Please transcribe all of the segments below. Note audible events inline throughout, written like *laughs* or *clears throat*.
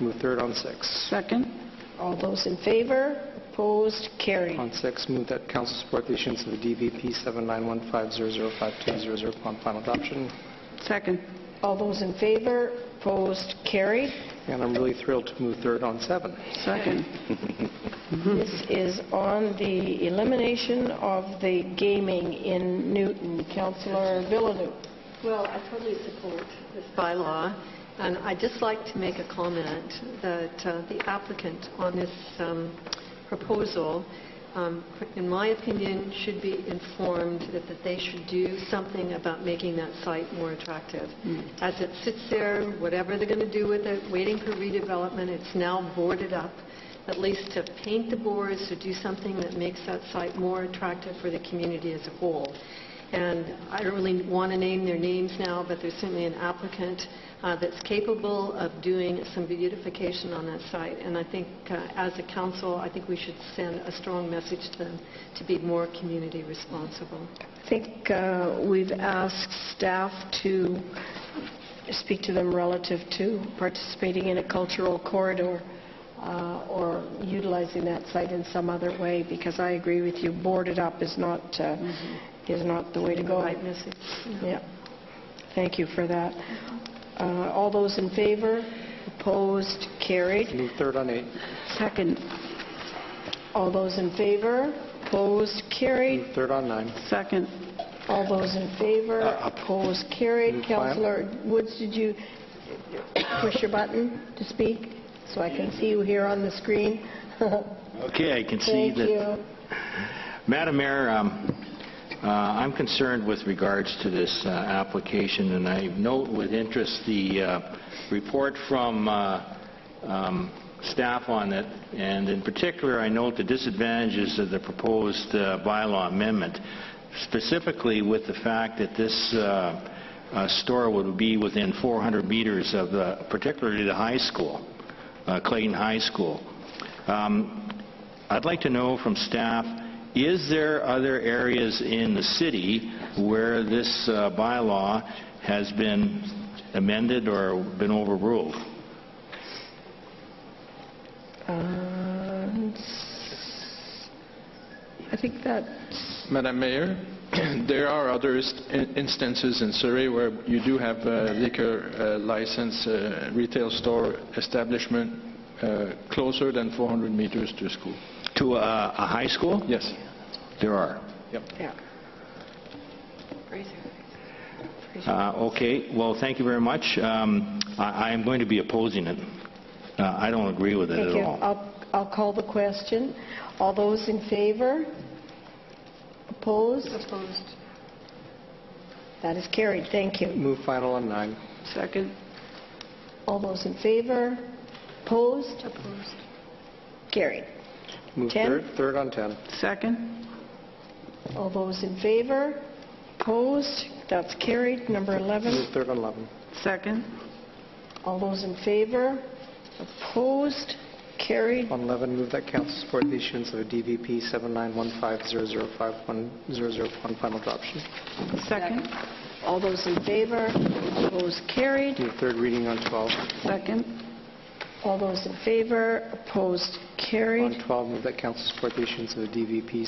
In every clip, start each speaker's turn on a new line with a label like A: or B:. A: Move third on six.
B: Second.
C: All those in favor? Opposed? Carried.
A: On six, move that council support the issuance of the DVP 7915005200 upon final adoption.
B: Second.
C: All those in favor? Opposed? Carried.
A: And I'm really thrilled to move third on seven.
B: Second.
C: This is on the elimination of the gaming in Newton. Councillor Villadue.
D: Well, I totally support this bylaw, and I'd just like to make a comment that uh, the applicant on this um, proposal, um, in my opinion, should be informed that that they should do something about making that site more attractive. As it sits there, whatever they're going to do with it, waiting for redevelopment, it's now boarded up, at least to paint the boards, to do something that makes that site more attractive for the community as a whole. And I don't really want to name their names now, but there's certainly an applicant uh, that's capable of doing some beautification on that site. And I think, uh, as a council, I think we should send a strong message to them to be more community responsible.
C: I think uh, we've asked staff to speak to them relative to participating in a cultural corridor uh, or utilizing that site in some other way, because I agree with you, boarded up is not, uh, is not the way to go.
D: Right message.
C: Yeah. Thank you for that. Uh, All those in favor? Opposed? Carried.
A: Move third on eight.
B: Second.
C: All those in favor? Opposed? Carried.
A: Move third on nine.
B: Second.
C: All those in favor?
A: Uh, up.
C: Opposed? Carried.
A: Mm, fine.
C: Councillor Woods, did you push your button to speak so I can see you here on the screen? *laughs*
E: Okay, I can see
C: Thank
E: that.
C: you.
E: Madam Mayor, um, uh, I'm concerned with regards to this uh, application, and I note with interest the uh, report from uh, um, staff on it, and in particular, I note the disadvantages of the proposed uh, bylaw amendment, specifically with the fact that this uh, uh, store would be within 400 meters of the- particularly the high school, uh, Clayton High School. Um, I'd like to know from staff, is there other areas in the city where this uh, bylaw has been amended or been overruled?
C: Uh, Um, s- I think that's
F: Madam Mayor, *clears throat* there are other is- in- instances in Surrey where you do have uh, liquor uh, license uh, retail store establishment uh, closer than 400 meters to school.
E: To a a high school?
F: Yes.
E: There are.
C: yeah.
E: Uh, Okay, well, thank you very much. Um, I I am going to be opposing it. Uh, I don't agree with it
C: Thank
E: at
C: you.
E: all.
C: I'll, I'll call the question. All those in favor? Opposed?
D: Opposed?
C: That is carried. Thank you.
A: Move final on nine.
B: Second.
C: All those in favor? Opposed?
D: Opposed.
C: Carried.
A: Move
C: Ten.
A: third, third on 10.
B: Second.
C: All those in favor? Opposed? That's carried. Number 11.
A: Move third on 11.
B: Second.
C: All those in favor? Opposed? Carried.
A: On 11, move that council support the issuance of a DVP 7915005100 upon final adoption.
B: Second.
C: All those in favor? Opposed? Carried.
A: Move third reading on 12.
B: Second.
C: All those in favor? Opposed? Carried.
A: On 12, move that council support the issuance of the DVP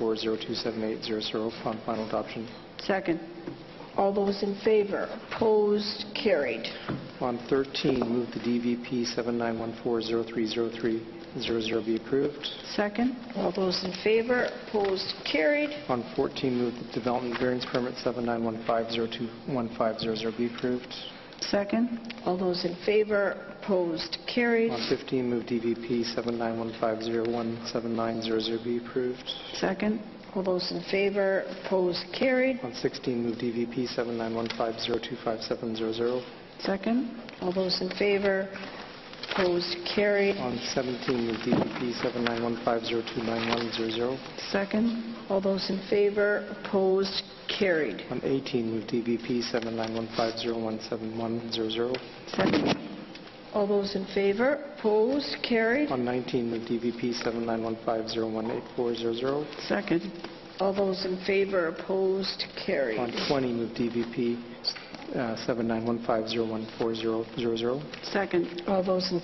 A: 7914027800 upon final adoption.
B: Second.
C: All those in favor? Opposed? Carried.
A: On 13, move the DVP 7914030300 be approved.
B: Second.
C: All those in favor? Opposed? Carried.
A: On 14, move the development variance permit 7915021500 be approved.
B: Second.
C: All those in favor? Opposed? Carried.
A: On 15, move DVP 7915017900 be approved.
B: Second.
C: All those in favor? Opposed? Carried.
A: On 16, move DVP 7915025700.
B: Second.
C: All those in favor? Opposed? Carried.
A: On 17, move DVP 7915029100.
B: Second.
C: All those in favor? Opposed? Carried.
A: On 18, move DVP 7915017100.
B: Second.
C: All those in favor? Opposed? Carried.
A: On 19, move DVP 7915018400.
B: Second.
C: All those in favor? Opposed?
A: On
C: Carried.
A: 20, move DVP
G: uh, 7915014000.
A: Second.
C: All those in